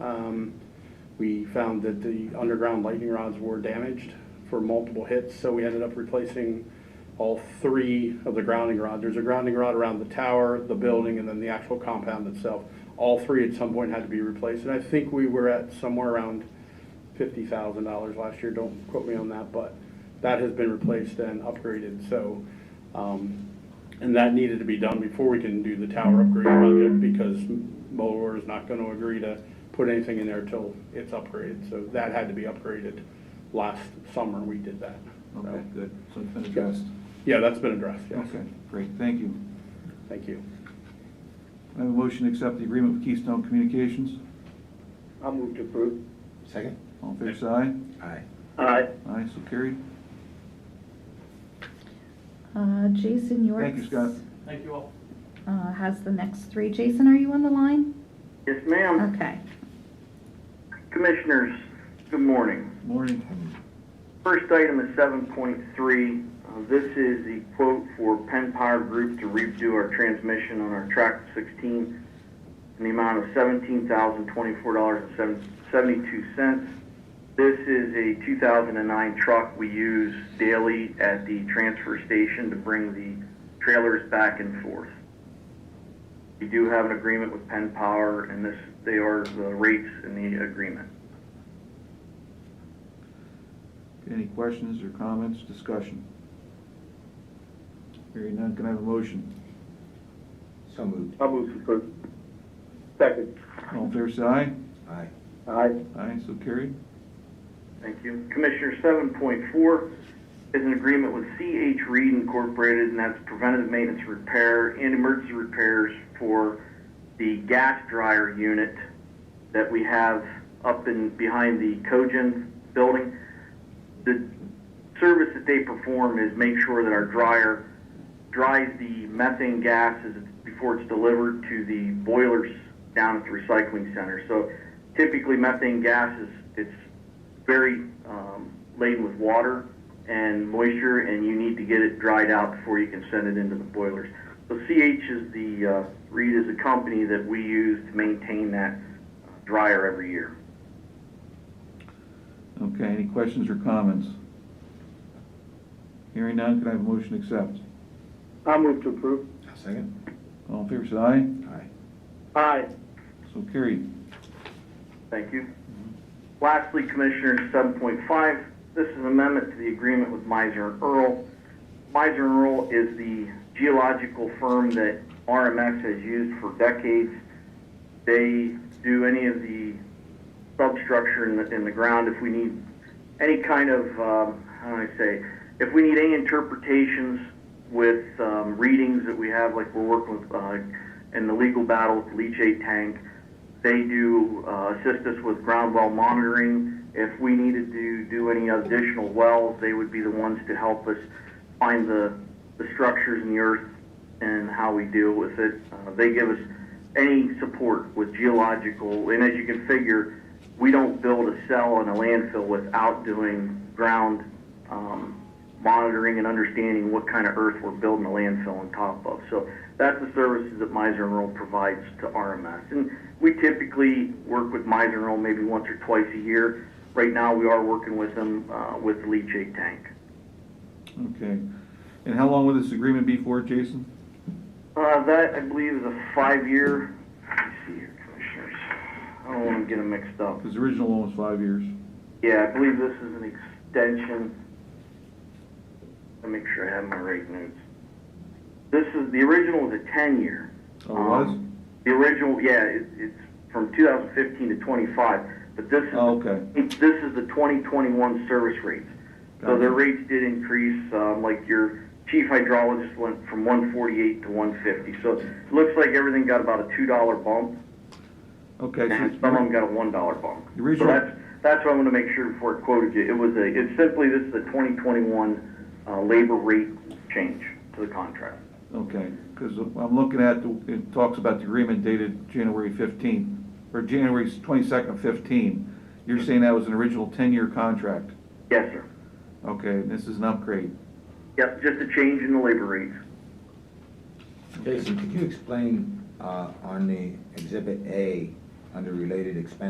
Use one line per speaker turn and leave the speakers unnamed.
Um, We found that the underground lightning rods were damaged for multiple hits, so we ended up replacing all three of the grounding rods. There's a grounding rod around the tower, the building, and then the actual compound itself. All three at some point had to be replaced, and I think we were at somewhere around fifty thousand dollars last year, don't quote me on that, but that has been replaced and upgraded, so, um, and that needed to be done before we can do the tower upgrade project, because Mueller is not gonna agree to put anything in there till it's upgraded, so that had to be upgraded last summer, we did that. so.
Okay, good, so it's been addressed.
Yeah, that's been addressed, yes,
Okay, great, thank you.
thank you.
I have a motion to accept the agreement with Keystone Communications.
I'll move to approve.
Second?
All in favor, say aye.
Aye.
Aye.
Aye, so carried.
Uh, Jason York.
Thank you, Scott.
Thank you all.
Uh, has the next three. Jason, are you on the line?
Yes, ma'am.
Okay.
Commissioners, good morning.
Morning.
First item is 7.3. Uh, This is the quote for Penn Power Group to redo our transmission on our Track 16 in the amount of $17,024.72. This is a 2009 truck we use daily at the transfer station to bring the trailers back and forth. We do have an agreement with Penn Power, and this, they are the rates in the agreement.
Any questions or comments, discussion? Hearing none, can I have a motion?
So moved.
I'll move to approve. Second.
All in favor, say aye.
Aye.
Aye.
Aye, so carried.
Thank you. Commissioner, 7.4 is an agreement with CH Reed Incorporated, and that's preventative maintenance repair and emergency repairs for the gas dryer unit that we have up in, behind the Cogen building. The service that they perform is make sure that our dryer dries the methane gas as it's, before it's delivered to the boilers down at the recycling center. So typically methane gas is, it's very um, laden with water and moisture, and you need to get it dried out before you can send it into the boilers. So CH is the, uh, Reed is the company that we use to maintain that dryer every year.
Okay, any questions or comments? Hearing none, can I have a motion to accept?
I'll move to approve.
I'll second?
All in favor, say aye.
Aye.
Aye.
So carried.
Thank you. Lastly, Commissioner, 7.5, this is an amendment to the agreement with Miser and Earl. Miser and Earl is the geological firm that RMX has used for decades. They do any of the substructure in the, in the ground if we need any kind of, um, how do I say, if we need any interpretations with um, readings that we have, like we're working with, uh, in the legal battle with leachate tank, they do uh, assist us with ground well monitoring. If we needed to do any additional wells, they would be the ones to help us find the, the structures in the earth and how we deal with it. Uh, they give us any support with geological, and as you can figure, we don't build a cell in a landfill without doing ground um, monitoring and understanding what kind of earth we're building a landfill on top of. So that's the services that Miser and Earl provides to RMS. And we typically work with Miser and Earl maybe once or twice a year. Right now, we are working with them uh, with the leachate tank.
Okay. And how long will this agreement be for, Jason?
Uh, that, I believe, is a five-year, let me see here, commissioners. I don't want to get them mixed up.
Because the original one was five years.
Yeah, I believe this is an extension. Let me make sure I have my right notes. This is, the original is a ten-year. Um,
Oh, it was?
The original, yeah, it, it's from two thousand fifteen to twenty-five, but this is.
Oh, okay.
This is the twenty twenty-one service rates. So
Gotcha.
their rates did increase, um, like your chief hydrologist went from one forty-eight to one fifty. So it looks like everything got about a two-dollar bump,
Okay, so
and
it's-
some of them got a one-dollar bump.
The
So
original-
that's, that's what I'm gonna make sure before I quoted you. It was a, it's simply, this is the twenty twenty-one, uh, labor rate change to the contract.
Okay, because I'm looking at, the- it talks about the agreement dated January 15th, or January 22nd, of 15. You're saying that was an original 10-year contract?
Yes, sir.
Okay, and this is an upgrade.
Yep, just a change in the labor rates.
Jason, could you explain, uh, on the exhibit A, under related expenses,